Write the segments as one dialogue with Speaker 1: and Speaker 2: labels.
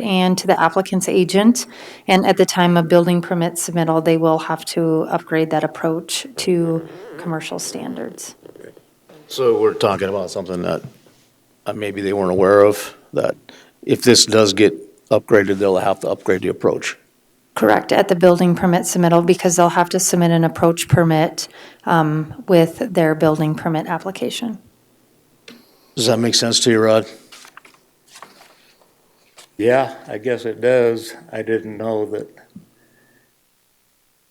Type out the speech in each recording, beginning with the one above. Speaker 1: and to the applicant's agent. And at the time of building permit submittal, they will have to upgrade that approach to commercial standards.
Speaker 2: So we're talking about something that uh, maybe they weren't aware of, that if this does get upgraded, they'll have to upgrade the approach.
Speaker 1: Correct, at the building permit submittal, because they'll have to submit an approach permit um, with their building permit application.
Speaker 2: Does that make sense to you, Rod?
Speaker 3: Yeah, I guess it does. I didn't know that,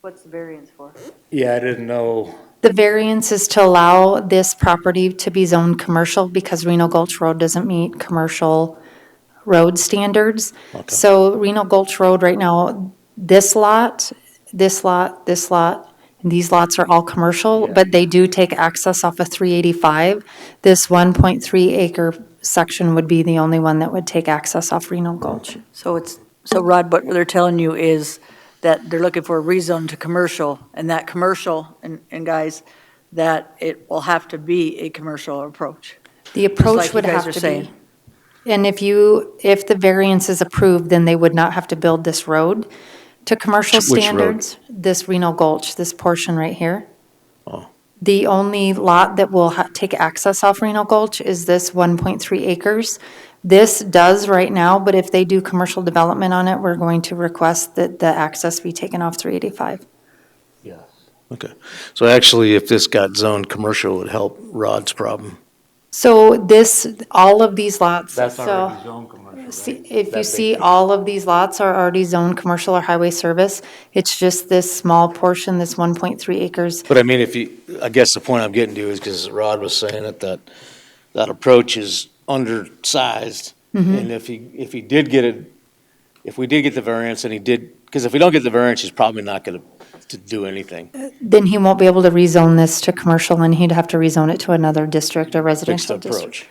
Speaker 4: What's the variance for?
Speaker 3: yeah, I didn't know,
Speaker 1: The variance is to allow this property to be zoned commercial because Reno Gulch Road doesn't meet commercial road standards. So Reno Gulch Road right now, this lot, this lot, this lot, and these lots are all commercial, but they do take access off of 385. This 1.3 acre section would be the only one that would take access off Reno Gulch.
Speaker 4: So it's, so Rod, what they're telling you is that they're looking for a rezone to commercial, and that commercial, and, and guys, that it will have to be a commercial approach.
Speaker 1: The
Speaker 4: like
Speaker 1: approach
Speaker 4: you
Speaker 1: would
Speaker 4: guys
Speaker 1: have
Speaker 4: are
Speaker 1: to
Speaker 4: saying.
Speaker 1: be. And if you, if the variance is approved, then they would not have to build this road to commercial
Speaker 2: Which- which road?
Speaker 1: standards. This Reno Gulch, this portion right here.
Speaker 2: Oh.
Speaker 1: The only lot that will ha- take access off Reno Gulch is this 1.3 acres. This does right now, but if they do commercial development on it, we're going to request that the access be taken off 385.
Speaker 2: Okay. So actually, if this got zoned commercial, it would help Rod's problem.
Speaker 1: So this, all of these lots, so.
Speaker 3: zone commercial,
Speaker 1: See- If you see, all of these lots are already zoned commercial or highway service. It's just this small portion, this 1.3 acres.
Speaker 2: But I mean, if you, I guess the point I'm getting to is because Rod was saying it, that, that approach is undersized. And if he, if he did get it, if we did get the variance and he did, because if we don't get the variance, he's probably not going to do anything.
Speaker 1: Then he won't be able to rezone this to commercial, and he'd have to rezone it to another district or
Speaker 2: Fixed
Speaker 1: residential district.
Speaker 2: approach.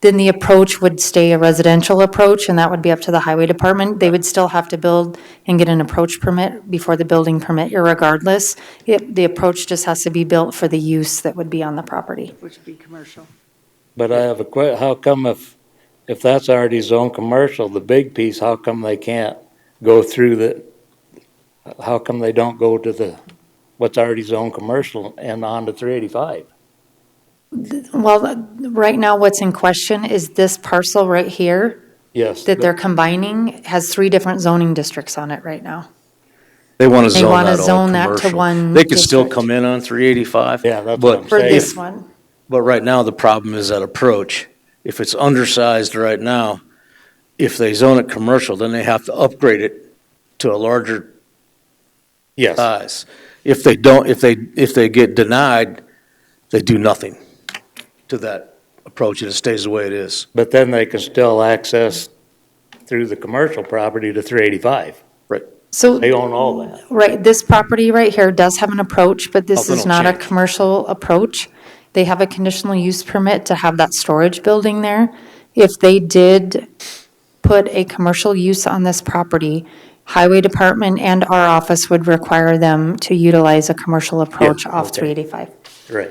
Speaker 1: Then the approach would stay a residential approach, and that would be up to the highway department. They would still have to build and get an approach permit before the building permit, irregardless. It- The approach just has to be built for the use that would be on the property.
Speaker 4: Which would be commercial.
Speaker 5: But I have a que, how come if, if that's already zone commercial, the big piece, how come they can't go through the, how come they don't go to the, what's already zone commercial and on to three eighty-five?
Speaker 1: Well, th- right now, what's in question is this parcel right here
Speaker 5: Yes.
Speaker 1: that they're combining has three different zoning districts on it right now.
Speaker 2: They want to
Speaker 1: They
Speaker 2: zone
Speaker 1: wanna
Speaker 2: that all
Speaker 1: zone that to
Speaker 2: commercial.
Speaker 1: one
Speaker 2: They could still
Speaker 1: district.
Speaker 2: come in on three eighty-five.
Speaker 5: Yeah, that's what I'm
Speaker 2: But,
Speaker 1: For
Speaker 5: Say
Speaker 1: this
Speaker 5: it.
Speaker 1: one,
Speaker 2: but right now, the problem is that approach. If it's undersized right now, if they zone it commercial, then they have to upgrade it to a larger
Speaker 5: Yes,
Speaker 2: size. If they don't, if they, if they get denied, they do nothing to that approach and it stays the way it is.
Speaker 5: but then they can still access through the commercial property to three eighty-five.
Speaker 1: so,
Speaker 5: They own all that.
Speaker 1: right, this property right here does have an approach, but this
Speaker 2: Nothing
Speaker 1: is
Speaker 2: will
Speaker 1: not a
Speaker 2: change.
Speaker 1: commercial approach. They have a conditional use permit to have that storage building there. If they did put a commercial use on this property, Highway Department and our office would require them to utilize a commercial approach off
Speaker 5: okay.
Speaker 1: 385.
Speaker 5: Right.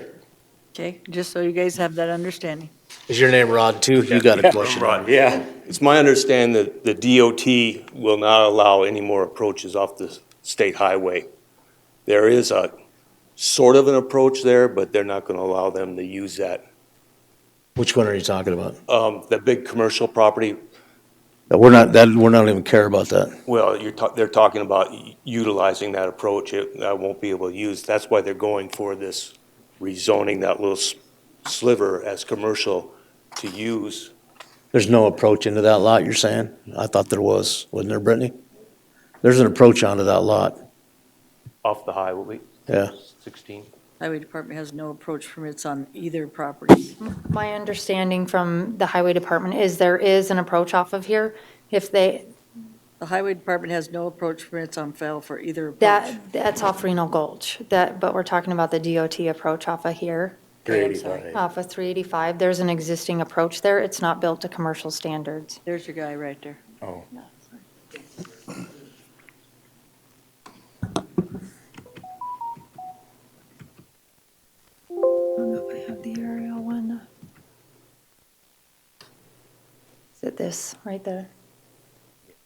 Speaker 4: Okay, just so you guys have that understanding.
Speaker 2: Is your name Rod too? You got a question?
Speaker 5: Yeah.
Speaker 6: It's my understanding that the DOT will not allow any more approaches off the state highway. There is a sort of an approach there, but they're not going to allow them to use that.
Speaker 2: Which one are you talking about?
Speaker 6: Um, The big commercial property,
Speaker 2: We're not, that, we're not even care about that.
Speaker 6: well, you're, ta- they're talking about u- utilizing that approach. It- I won't be able to use, that's why they're going for this rezoning that little s- sliver as commercial to use.
Speaker 2: There's no approach into that lot, you're saying? I thought there was, wasn't there, Brittany? There's an approach onto that lot,
Speaker 6: Off the highway,
Speaker 2: yeah.
Speaker 6: 16.
Speaker 4: Highway Department has no approach permits on either property.
Speaker 1: My understanding from the highway department is there is an approach off of here. If they,
Speaker 4: The Highway Department has no approach permits on file for either approach.
Speaker 1: that, that's off Reno Gulch, that, but we're talking about the DOT approach off of here,
Speaker 4: Okay, I'm sorry.
Speaker 1: off of 385. There's an existing approach there. It's not built to commercial standards.
Speaker 4: There's your guy right there.
Speaker 1: I don't know if I have the aerial one. Is it this, right there?